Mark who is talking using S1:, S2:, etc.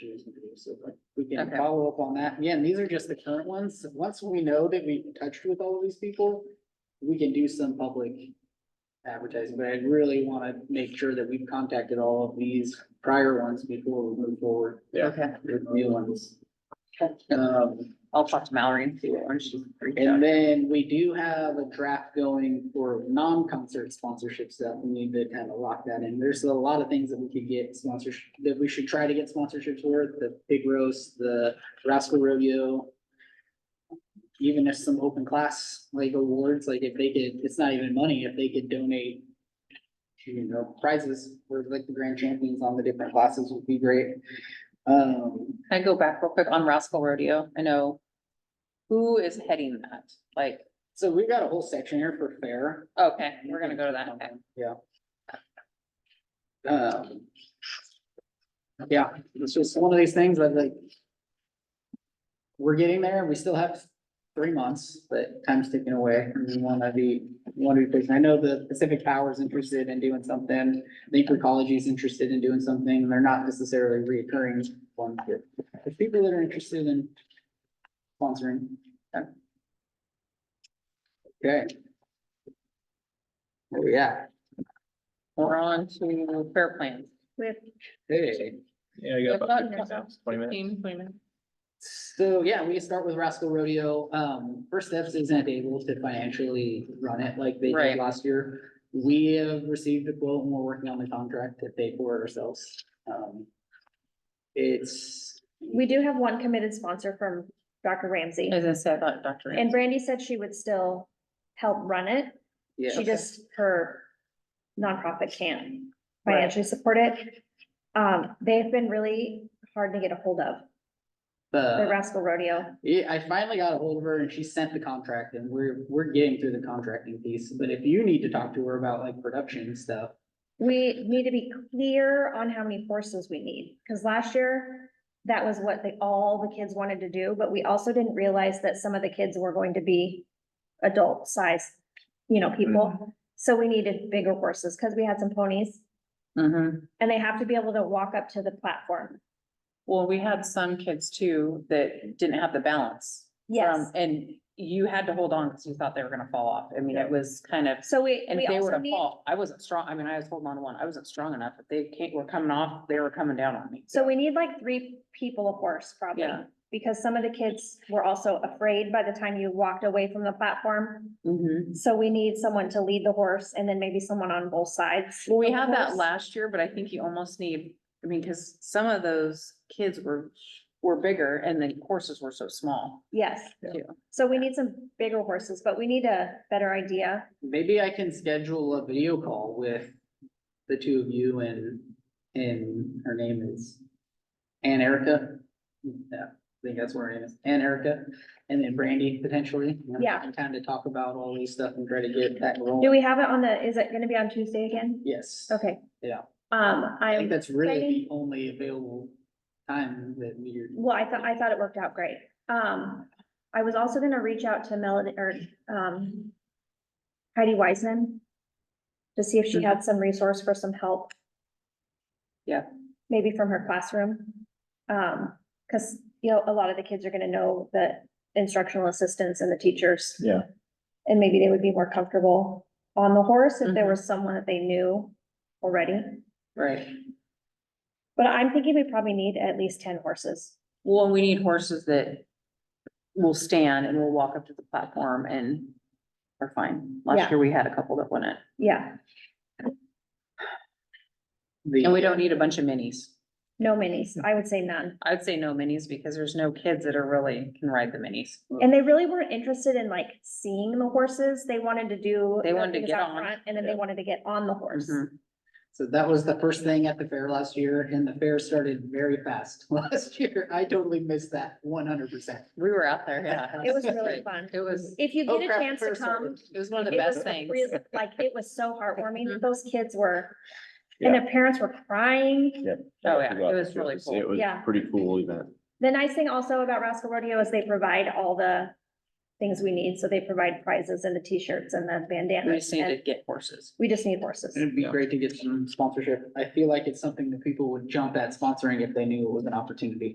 S1: too, so like, we can
S2: Okay.
S1: follow up on that. Again, these are just the current ones. Once we know that we've touched with all of these people, we can do some public advertising, but I really want to make sure that we've contacted all of these prior ones before we move forward
S3: Yeah.
S2: Okay,
S1: with new ones. Um,
S2: I'll talk to Mallory and see what one she's. reached out.
S1: and then we do have a draft going for non-concert sponsorship stuff. We need to kind of lock that in. There's a lot of things that we could get sponsorship, that we should try to get sponsorships for, the pig roast, the rascal rodeo. Even if some open class like awards, like if they could, it's not even money, if they could donate. You know, prizes for like the grand champions on the different classes would be great. Um,
S2: Can I go back real quick on Rascal Rodeo? I know. Who is heading that? Like,
S1: so we've got a whole section here for fair.
S2: okay, we're gonna go to that. Okay.
S1: Yeah. Um. Yeah, it's just one of these things that like. We're getting there, we still have three months, but time's ticking away, and we wanna be, we wanna be patient. I know the Pacific Power's interested in doing something. I think Recology's interested in doing something, they're not necessarily reoccurring ones, but there's people that are interested in sponsoring. yeah. Okay. Where we at?
S2: We're on to fair plans. With.
S1: Hey,
S3: Yeah, I got about 15 minutes, twenty minutes.
S1: so yeah, we can start with Rascal Rodeo. Um, First Steps isn't able to financially run it like they
S2: Right.
S1: did last year. We have received a quote and we're working on the contract to pay for it ourselves. Um, It's,
S4: We do have one committed sponsor from Dr. Ramsey,
S2: As I said, about Dr.
S4: and Brandy said she would still help run it.
S1: yeah.
S4: She just, her nonprofit can't
S2: Right.
S4: financially support it. Um, they've been really hard to get a hold of, the
S1: Uh,
S4: Rascal Rodeo.
S1: Yeah, I finally got a hold of her and she sent the contract and we're, we're getting through the contracting piece. But if you need to talk to her about like production stuff,
S4: We need to be clear on how many horses we need, because last year, that was what they, all the kids wanted to do, but we also didn't realize that some of the kids were going to be adult sized, you know, people. So we needed bigger horses, because we had some ponies.
S2: Mm-hmm.
S4: And they have to be able to walk up to the platform.
S2: Well, we had some kids too that didn't have the balance. Um, And you had to hold on because you thought they were gonna fall off. I mean, it was kind of.
S4: So we,
S2: And
S4: we
S2: if they were
S4: also
S2: to
S4: need,
S2: fall, I wasn't strong, I mean, I was holding on to one, I wasn't strong enough, if they came, were coming off, they were coming down on me.
S4: so we need like three people a horse probably.
S2: Yeah.
S4: Because some of the kids were also afraid by the time you walked away from the platform.
S2: Mhm.
S4: So we need someone to lead the horse and then maybe someone on both sides.
S2: Well, we
S4: of the
S2: had that
S4: horse.
S2: last year, but I think you almost need, I mean, cause some of those kids were, were bigger and the horses were so small.
S4: Yes.
S2: Yeah.
S4: So we need some bigger horses, but we need a better idea.
S1: maybe I can schedule a video call with the two of you and, and her name is Ann Erica. Yeah, I think that's where her name is, Ann Erica, and then Brandy potentially.
S4: Yeah.
S1: And kind of talk about all these stuff and try to get that
S4: Do
S1: rolling.
S4: we have it on the, is it gonna be on Tuesday again?
S1: Yes.
S4: Okay.
S1: Yeah.
S4: Um,
S1: I think
S4: I'm,
S1: that's really
S4: Brandy?
S1: the only available time that we're.
S4: well, I thought, I thought it worked out great. Um, I was also gonna reach out to Melody or, um, Heidi Wiseman to see if she had some resource for some help.
S2: Yeah.
S4: Maybe from her classroom. Um, cause, you know, a lot of the kids are gonna know the instructional assistants and the teachers.
S3: Yeah.
S4: And maybe they would be more comfortable on the horse if there
S2: Mhm.
S4: was someone that they knew already.
S1: Right.
S4: But I'm thinking we probably need at least ten horses.
S2: Well, and we need horses that will stand and will walk up to the platform and are fine.
S4: Yeah.
S2: Last year, we had a couple that wouldn't,
S4: Yeah,
S2: and
S1: The,
S2: we don't need a bunch of minis.
S4: no minis.
S2: Mm.
S4: I would say none.
S2: I'd say no minis because there's no kids that are really can ride the minis.
S4: And they really weren't interested in like seeing the horses. They wanted to do.
S2: They wanted to
S4: things
S2: get
S4: out
S2: on.
S4: front, And then they
S3: Yeah.
S4: wanted to get on the horse.
S2: Mhm.
S1: so that was the first thing at the fair last year, and the fair started very fast last year. I totally missed that one hundred percent.
S2: We were out there, yeah.
S4: It was really
S2: great.
S4: fun.
S2: It was,
S4: If you
S1: Oh,
S4: get a
S1: crap,
S4: chance to
S1: fair started.
S4: come.
S2: it was one of the
S4: it was
S2: best Mm-hmm. things.
S4: really- Like, it was so heartwarming. Those kids were, and
S3: Yeah.
S4: their parents were crying.
S2: Oh, yeah,
S3: Forgot
S2: it was
S3: that
S2: really cool.
S3: It was
S4: Yeah.
S3: a pretty cool event.
S4: The nice thing also about Rascal Rodeo is they provide all the things we need. So they provide prizes and the t-shirts and the
S2: We
S4: bandanas.
S2: just needed
S4: and
S2: to get horses.
S4: We just need horses.
S1: It'd be
S3: Yeah.
S1: great to get some sponsorship. I feel like it's something that people would jump at sponsoring if they knew it was an opportunity.